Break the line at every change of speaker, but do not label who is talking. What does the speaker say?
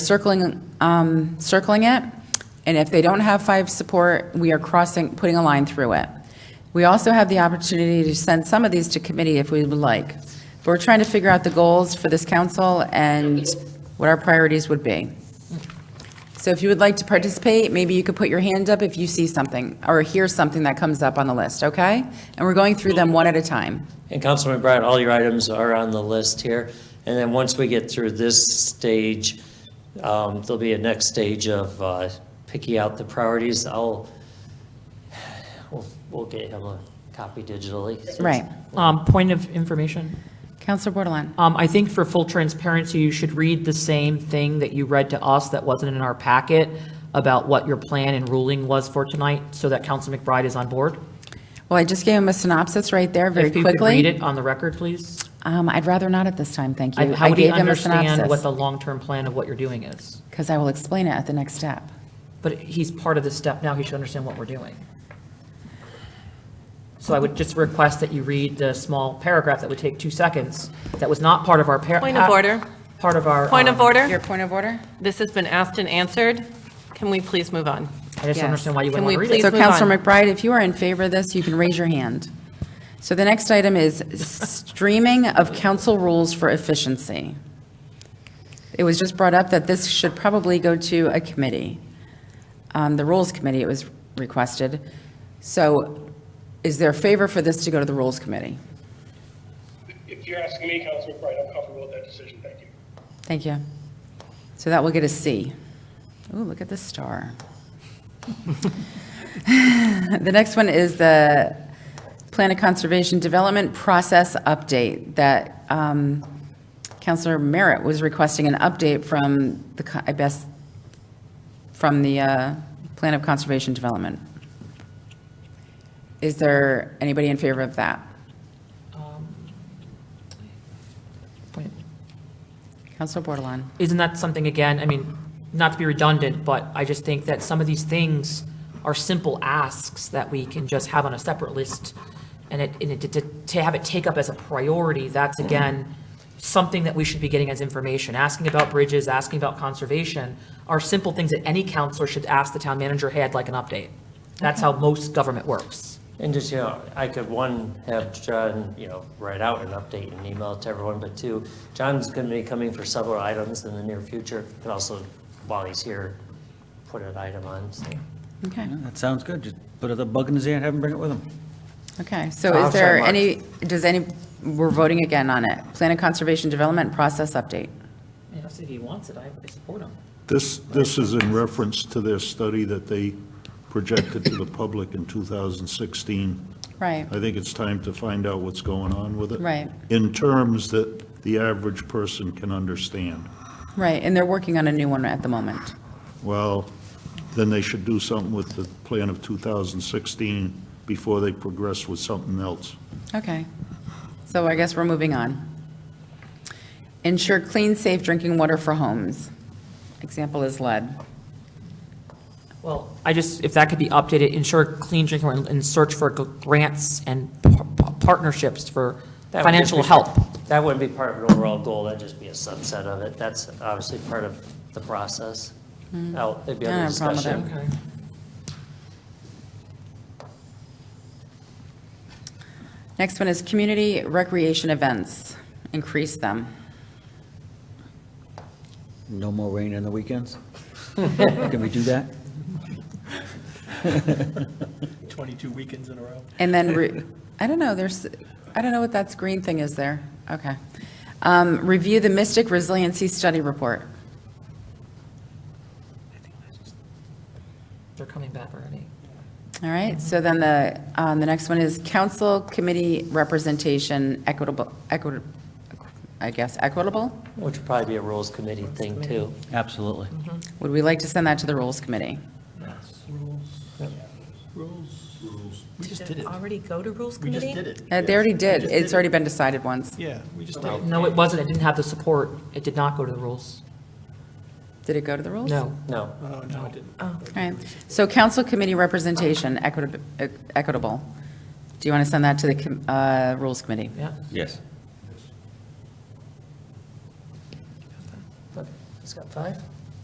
circling, um, circling it, and if they don't have five support, we are crossing, putting a line through it. We also have the opportunity to send some of these to committee if we would like. But we're trying to figure out the goals for this council and what our priorities would be. So if you would like to participate, maybe you could put your hand up if you see something or hear something that comes up on the list, okay? And we're going through them one at a time.
And Councilman Brown, all your items are on the list here. And then once we get through this stage, um, there'll be a next stage of uh, picking out the priorities. I'll, we'll, we'll get him a copy digitally.
Right.
Um, Point of information.
Counselor Bordelon?
Um, I think for full transparency, you should read the same thing that you read to us that wasn't in our packet about what your plan and ruling was for tonight, so that Council McBride is on board.
Well, I just gave him a synopsis right there very
If you
quickly.
could read it on the record, please.
Um, I'd rather not at this time, thank
I-
you.
How
I
would he
gave him a
understand what the
synopsis,
long-term plan of what you're doing is?
because I will explain it at the next step.
But he's part of this step now, he should understand what we're doing. So I would just request that you read the small paragraph that would take two seconds, that was not part of our. par-
Point of order.
Part of our.
Point of
um,
Your
order.
point of order?
This has been asked and answered. Can we please move on?
I just
Yes.
don't understand why you
Can
wouldn't want to read
we
it.
please
So
move
Counselor
on.
McBride, if you are in favor of this, you can raise your hand. So the next item is streaming of council rules for efficiency. It was just brought up that this should probably go to a committee. Um, The Rules Committee, it was requested. So is there favor for this to go to the Rules Committee?
If you're asking me, Councilman McBride, I'm comfortable with that decision, thank you.
Thank you. So that will get a C. Ooh, look at the star. The next one is the Plan of Conservation Development Process Update that um, Counselor Merritt was requesting an update from the, co- I guess, from the uh, Plan of Conservation Development. Is there anybody in favor of that?
Point.
Counselor Bordelon?
Isn't that something, again, I mean, not to be redundant, but I just think that some of these things are simple asks that we can just have on a separate list, and it, and it, to- to have it take up as a priority, that's again, something that we should be getting as information, asking about bridges, asking about conservation, are simple things that any counselor should ask the town manager, hey, I'd like an update. That's how most government works.
And just, you know, I could, one, have John, you know, write out an update and email it to everyone, but two, John's going to be coming for several items in the near future. Could also, while he's here, put an item on, so.
Okay.
Yeah, That sounds good. Just put a bug in his ear and have him bring it with him.
Okay, so
I'll
is there
try
any, does any, we're voting again on it. Plan of Conservation Development Process Update.
You know, if he wants it, I support him.
This, this is in reference to their study that they projected to the public in 2016.
Right,
I think it's time to find out what's going on with it.
Right.
In terms that the average person can understand.
right, and they're working on a new one at the moment.
Well, then they should do something with the plan of 2016 before they progress with something else.
Okay, so I guess we're moving on. Ensure clean, safe drinking water for homes. Example is lead.
Well, I just, if that could be updated, ensure clean drinking water and search for grants and par- partnerships for
That would just
financial
be-
help.
That wouldn't be part of an overall goal, that'd just be a subset of it. That's obviously part of the process. Oh, it'd be
I
under
don't have a problem with
discussion.
Next one is community recreation events, increase them.
No more rain on the weekends? Can we do that?
22 weekends in a row.
And then, re- I don't know, there's, I don't know what that green thing is there. Okay. Um, Review the Mystic Resiliency Study Report.
They're coming back already.
All right, so then the, um, the next one is council committee representation equitable, equitable, I guess equitable?
Which would probably be a rules committee thing, too.
Absolutely.
Would we like to send that to the rules committee?
We just did it.
Already go to Rules
We just did
Committee?
it.
Uh, They already did, it's already been decided once.
Yeah, we just did it.
No, it wasn't. It didn't have the support. It did not go to the rules.
Did it go to the rules?
No.
No,
Oh, no, it didn't.
All right, so council committee representation equitable, equitable. Do you want to send that to the com- uh, rules committee?
Yeah.
Yes.
it's got five?